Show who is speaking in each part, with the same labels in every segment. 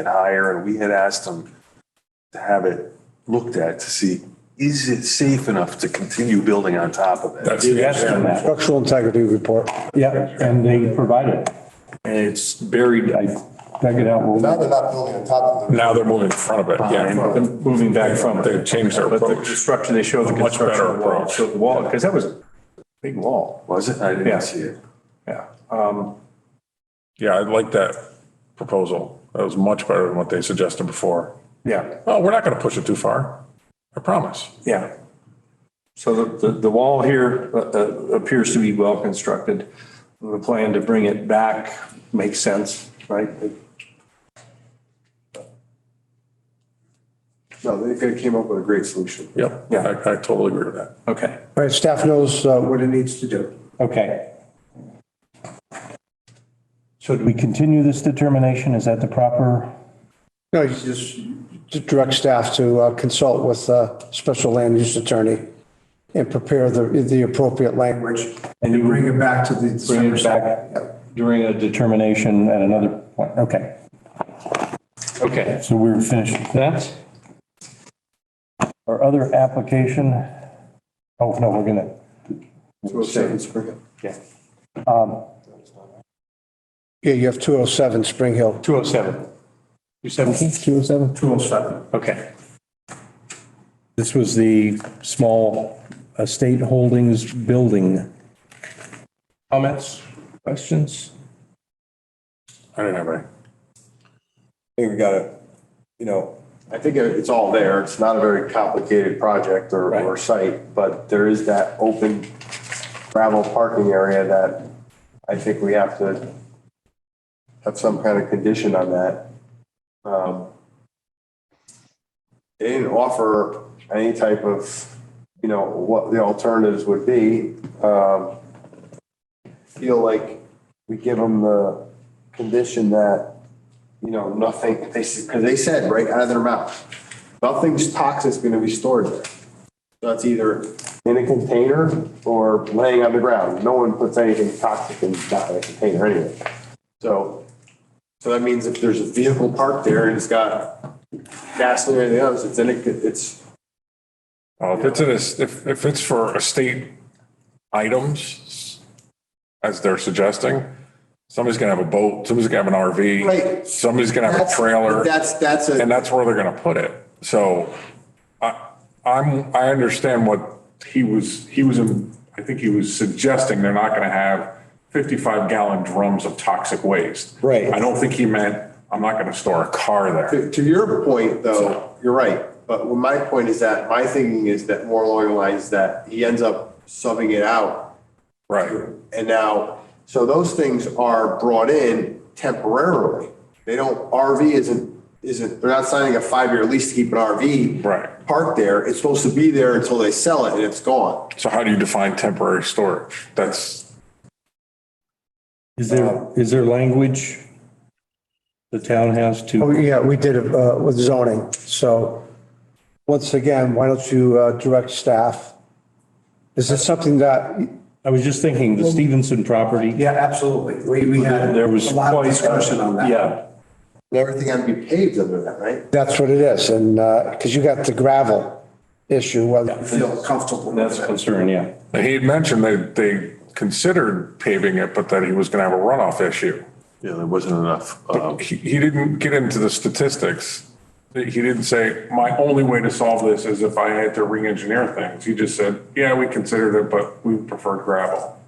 Speaker 1: and higher, and we had asked them to have it looked at to see, is it safe enough to continue building on top of it?
Speaker 2: That's the issue.
Speaker 3: Structural integrity report.
Speaker 4: Yeah, and they provided. it. And it's buried, I dug it out.
Speaker 5: Now they're not building on top of the,
Speaker 2: Now they're moving in front of it, yeah.
Speaker 4: Moving back from
Speaker 2: They've changed their
Speaker 4: But the
Speaker 2: approach.
Speaker 4: construction, they showed the
Speaker 2: Much better
Speaker 4: construction of the wall,
Speaker 2: approach.
Speaker 4: showed the wall, because that was a big wall,
Speaker 1: Was it? I
Speaker 4: Yeah.
Speaker 1: didn't see it.
Speaker 4: yeah. Um,
Speaker 2: Yeah, I like that proposal. That was much better than what they suggested before.
Speaker 4: Yeah,
Speaker 2: Oh, we're not going to push it too far. I promise.
Speaker 4: yeah. So the, the, the wall here uh, uh, appears to be well constructed. The plan to bring it back makes sense, right?
Speaker 5: no, they they came up with a great solution.
Speaker 2: Yep.
Speaker 4: Yeah.
Speaker 2: I, I totally agree with that.
Speaker 4: Okay,
Speaker 3: All right, staff knows uh, what
Speaker 5: What it needs to do.
Speaker 6: Okay. So do we continue this determination? Is that the proper?
Speaker 3: No, you just just direct staff to uh, consult with a special land use attorney and prepare the, the appropriate language.
Speaker 6: And you
Speaker 5: Bring it back to the
Speaker 6: bring
Speaker 5: December
Speaker 6: it back during a determination at another point? Okay,
Speaker 4: okay.
Speaker 6: so we're finished with that. Our other application, oh, no, we're gonna,
Speaker 3: Yeah, you have 207 Spring Hill.
Speaker 4: 207, 217?
Speaker 3: 207?
Speaker 4: 207. Okay,
Speaker 6: this was the small estate holdings building.
Speaker 4: comments, questions?
Speaker 2: I didn't have any.
Speaker 7: I think we gotta, you know,
Speaker 5: I think it's all there. It's not a very complicated project or,
Speaker 4: Right.
Speaker 5: or site, but there is that open gravel parking area that I think we have to have some kind of condition on that. Um, They didn't offer any type of, you know, what the alternatives would be. Um, Feel like we give them the condition that you know, nothing, they, because they said right out of their mouth, nothing's toxic's going to be stored there. So it's either in a container or laying on the ground. No one puts anything toxic in, not in a container anyway. So, so that means if there's a vehicle parked there and it's got gasoline or anything else, it's in it, it's,
Speaker 2: Well, if it's in a, if, if it's for estate items, as they're suggesting, somebody's gonna have a boat, somebody's gonna have an RV,
Speaker 5: Right.
Speaker 2: somebody's gonna have a
Speaker 5: That's-
Speaker 2: trailer,
Speaker 5: that's, that's a.
Speaker 2: and that's where they're gonna put it. So I, I'm, I understand what he was, he was, in- I think he was suggesting they're not gonna have fifty-five gallon drums of toxic waste.
Speaker 7: Right.
Speaker 2: I don't think he meant, I'm not gonna store a car there.
Speaker 5: To to your point, though, you're right. But what my point is that, my thinking is that more along the lines that he ends up subbing it out.
Speaker 2: Right.
Speaker 5: And now, so those things are brought in temporarily. They don't, RV isn't, isn't, they're not signing a five-year lease to keep an RV.
Speaker 2: Right.
Speaker 5: Parked there. It's supposed to be there until they sell it and it's gone.
Speaker 2: So how do you define temporary storage? That's,
Speaker 6: Is there, is there language the town has to?
Speaker 3: Oh, yeah, we did it uh, with zoning. So once again, why don't you uh, direct staff? Is this something that,
Speaker 6: I was just thinking, the Stevenson property,
Speaker 8: Yeah, absolutely. We, we had
Speaker 4: There was
Speaker 8: a lot of
Speaker 4: quite a-
Speaker 8: discussion on that.
Speaker 4: Yeah,
Speaker 5: And everything had to be paved under that, right?
Speaker 3: that's what it is? And, because you got the gravel issue, whether
Speaker 8: I Feel comfortable.
Speaker 6: that's a concern, yeah.
Speaker 2: And He had mentioned that they considered paving it, but that he was going to have a runoff issue.
Speaker 1: Yeah, there wasn't enough. um,
Speaker 2: He, he didn't get into the statistics. He didn't say, my only way to solve this is if I had to re-engineer things. He just said, yeah, we considered it, but we preferred gravel.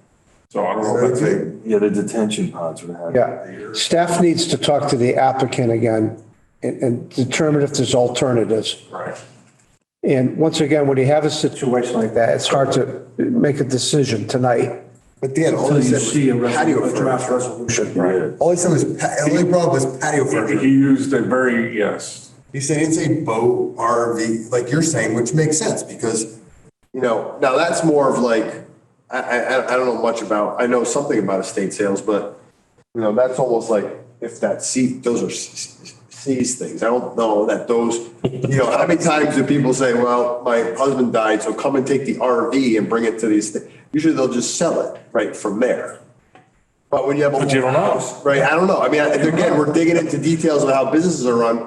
Speaker 2: So I don't know if that's it.
Speaker 7: Yeah, the detention pods would have.
Speaker 3: Yeah, staff needs to talk to the applicant again and, and determine if there's alternatives.
Speaker 2: Right.
Speaker 3: And once again, when you have a situation like that, it's hard to make a decision tonight.
Speaker 7: But Dan, all
Speaker 8: Until
Speaker 7: he
Speaker 8: you
Speaker 7: said
Speaker 8: see a
Speaker 7: was
Speaker 8: resol-
Speaker 7: patio
Speaker 8: a
Speaker 7: furniture.
Speaker 8: draft resolution.
Speaker 7: All he said was, pa- the only problem was patio
Speaker 2: He
Speaker 7: furniture.
Speaker 2: he used a very, yes,
Speaker 7: He said, he didn't say boat, RV, like you're saying, which makes sense because
Speaker 5: You know, now that's more of like, I, I, I- I don't know much about, I know something about estate sales, but, you know, that's almost like if that C, those are C's things. I don't know that those, you know, how many times do people say, well, my husband died, so come and take the RV and bring it to these, thi-" usually they'll just sell it right from there.
Speaker 7: But when you have. a
Speaker 2: But you don't know.
Speaker 7: Right, I don't know. I mean, I- again, we're digging into details of how businesses are run.